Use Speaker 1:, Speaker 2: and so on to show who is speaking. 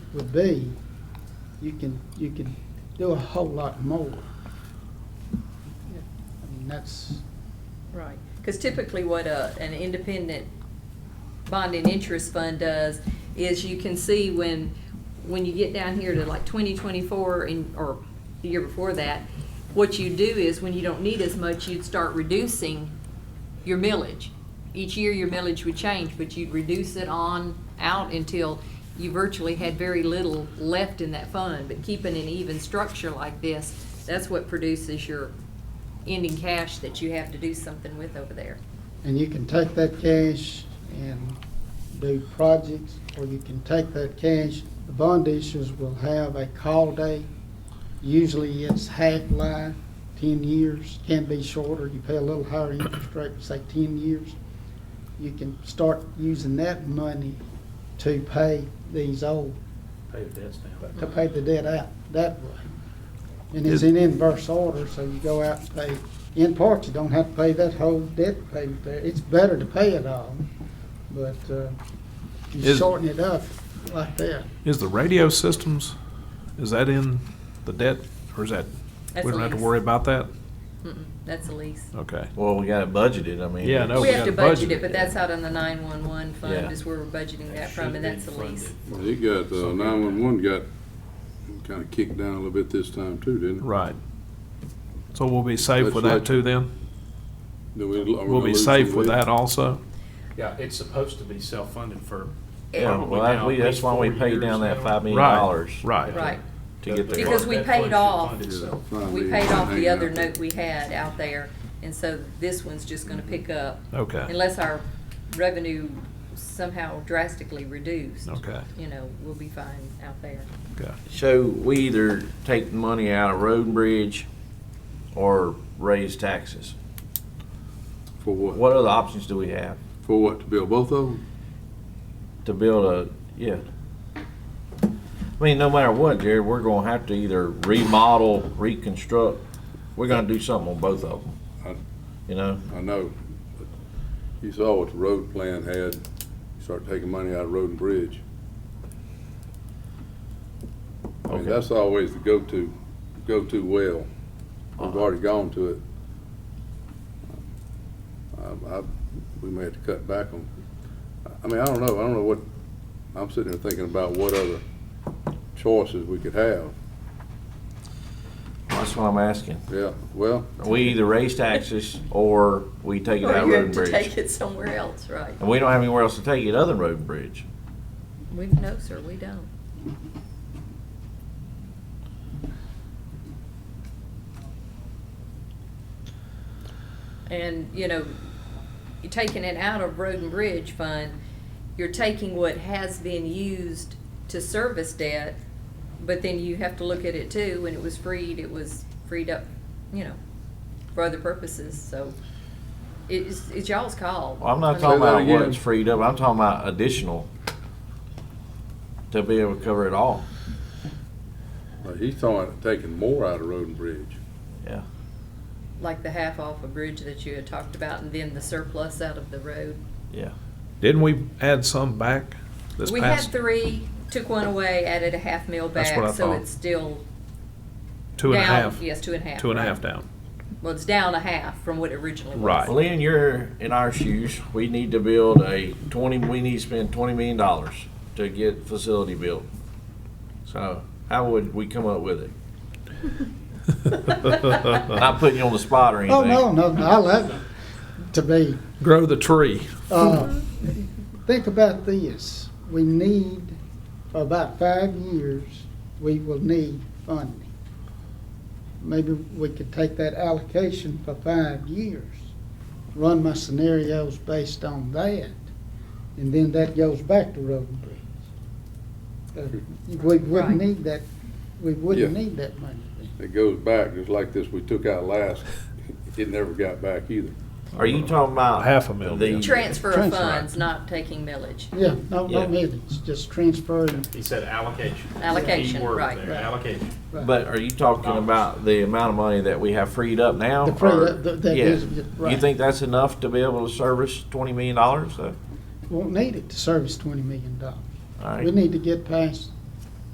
Speaker 1: would be, you can, you can do a whole lot more. I mean, that's,
Speaker 2: Right, because typically what a, an independent bond and interest fund does is you can see when, when you get down here to like twenty twenty-four and, or the year before that, what you do is when you don't need as much, you'd start reducing your millage. Each year your millage would change, but you'd reduce it on out until you virtually had very little left in that fund. But keeping an even structure like this, that's what produces your ending cash that you have to do something with over there.
Speaker 1: and you can take that cash and do projects, or you can take that cash. The bond issuers will have a call date. Usually it's half-life, ten years, can be shorter. You pay a little higher interest rate, say ten years. You can start using that money to pay these old
Speaker 3: Pay the debts down.
Speaker 1: to pay the debt out that way. And it's in inverse order, so you go out and pay, in part, you don't have to pay that whole debt payment there. It's better to pay it all, but uh, you
Speaker 4: Is-
Speaker 1: shorten it up like that.
Speaker 4: Is the radio systems, is that in the debt, or is that,
Speaker 2: That's
Speaker 4: we don't have to
Speaker 2: lease.
Speaker 4: worry about that?
Speaker 2: Mm-mm, That's a lease.
Speaker 4: Okay.
Speaker 5: Well, we got it budgeted, I mean.
Speaker 4: Yeah, I know. No,
Speaker 2: We
Speaker 4: Oh, we
Speaker 2: have to
Speaker 4: gotta
Speaker 2: budget
Speaker 4: budget
Speaker 2: it,
Speaker 4: it.
Speaker 2: but that's out on the nine-one-one
Speaker 5: Yeah.
Speaker 2: fund is where we're budgeting that from, and that's a lease.
Speaker 6: He got, uh, nine-one-one got kinda kicked down a little bit this time too, didn't it?
Speaker 4: Right. So we'll be safe with that too then? We'll
Speaker 6: We'll
Speaker 4: be safe with that also?
Speaker 3: Yeah, it's supposed to be self-funded for.
Speaker 5: Well,
Speaker 3: probably
Speaker 5: well, that-
Speaker 3: now
Speaker 5: we-
Speaker 3: at
Speaker 5: that's
Speaker 3: least
Speaker 5: why we
Speaker 3: four
Speaker 5: paid
Speaker 3: years
Speaker 5: down that
Speaker 3: now.
Speaker 5: five million
Speaker 4: Right,
Speaker 5: dollars
Speaker 4: right.
Speaker 2: Right.
Speaker 5: to get the.
Speaker 2: Because we
Speaker 3: That
Speaker 2: paid
Speaker 3: fund should
Speaker 2: off.
Speaker 3: fund itself.
Speaker 2: We paid off the other note we had out there, and so this one's just gonna pick up
Speaker 4: Okay,
Speaker 2: unless our revenue somehow drastically reduced.
Speaker 4: Okay.
Speaker 2: You know, we'll be fine out there.
Speaker 4: okay.
Speaker 5: So we either take the money out of road and bridge or raise taxes.
Speaker 6: For
Speaker 5: What
Speaker 6: what?
Speaker 5: other options do we have
Speaker 6: For what, to build both of them?
Speaker 5: to build a, yeah? I mean, no matter what, Jared, we're gonna have to either remodel, reconstruct, we're gonna do something on both of
Speaker 6: I-
Speaker 5: them. You know,
Speaker 6: I know, but you saw what the road plan had, you start taking money out of road and bridge. I mean,
Speaker 5: Okay.
Speaker 6: that's always the go-to, go-to well. We've
Speaker 5: Uh-huh.
Speaker 6: already gone to it. Um, I, I, we may have to cut back on, I mean, I don't know, I don't know what, I'm sitting here thinking about what other choices we could have.
Speaker 5: that's what I'm asking.
Speaker 6: Yeah, well,
Speaker 5: We either raise taxes or we take it out of road and bridge.
Speaker 2: it somewhere else, right?
Speaker 5: And we don't have anywhere else to take it other than road and bridge.
Speaker 2: We, no, sir, we don't. And, you know, you're taking it out of road and bridge fund, you're taking what has been used to service debt, but then you have to look at it too, when it was freed, it was freed up, you know, for other purposes, so it's, it's y'all's call.
Speaker 5: Well, I'm not
Speaker 6: Say
Speaker 5: talking
Speaker 6: that
Speaker 5: about what
Speaker 6: again.
Speaker 5: it's freed up, I'm talking about additional to be able to cover it all.
Speaker 6: he's talking, about taking more out of road and bridge.
Speaker 5: Yeah.
Speaker 2: like the half off a bridge that you had talked about, and then the surplus out of the road.
Speaker 5: Yeah.
Speaker 4: Didn't we add some back this
Speaker 2: We had
Speaker 4: past,
Speaker 2: three, took one away, added a half mil
Speaker 4: That's what I
Speaker 2: back, so
Speaker 4: thought.
Speaker 2: it's still
Speaker 4: two and a
Speaker 2: down-
Speaker 4: half?
Speaker 2: Yes, two and a half.
Speaker 4: Two and a
Speaker 2: right.
Speaker 4: half down.
Speaker 2: Well, it's down a half from what it originally was.
Speaker 4: Right.
Speaker 5: Well, Lynn, you're in our shoes, we need to build a twenty, we need to spend twenty million dollars to get facility built. So how would we come up with it? Not putting you on the spot or anything.
Speaker 1: Oh, no, no, no, I love it, to be.
Speaker 4: Grow the tree.
Speaker 1: Uh, Think about this, we need, for about five years, we will need funding. Maybe we could take that allocation for five years, run my scenarios based on that, and then that goes back to road and bridge. Uh, We
Speaker 2: Right.
Speaker 1: wouldn't need that, we wouldn't
Speaker 6: Yeah.
Speaker 1: need that money. then.
Speaker 6: It goes back, just like this we took out last, it never got back either.
Speaker 5: Are you talking about?
Speaker 4: Half a mil,
Speaker 5: the-
Speaker 4: yeah.
Speaker 2: Transfer of
Speaker 1: Transfer.
Speaker 2: funds, not taking millage.
Speaker 1: Yeah, no,
Speaker 5: Yeah.
Speaker 1: no millions, just transferring,
Speaker 3: He said allocation.
Speaker 2: Allocation,
Speaker 3: Key word
Speaker 2: right.
Speaker 3: there, Allocation.
Speaker 5: But are you talking about the amount of money that we have freed up now?
Speaker 1: The freed
Speaker 5: or-
Speaker 1: up, that- that
Speaker 5: Yeah.
Speaker 1: is- right.
Speaker 5: You think that's enough to be able to service twenty million dollars? Uh,
Speaker 1: won't need it to service twenty million dollars.
Speaker 5: All
Speaker 1: We
Speaker 5: right,
Speaker 1: need to get past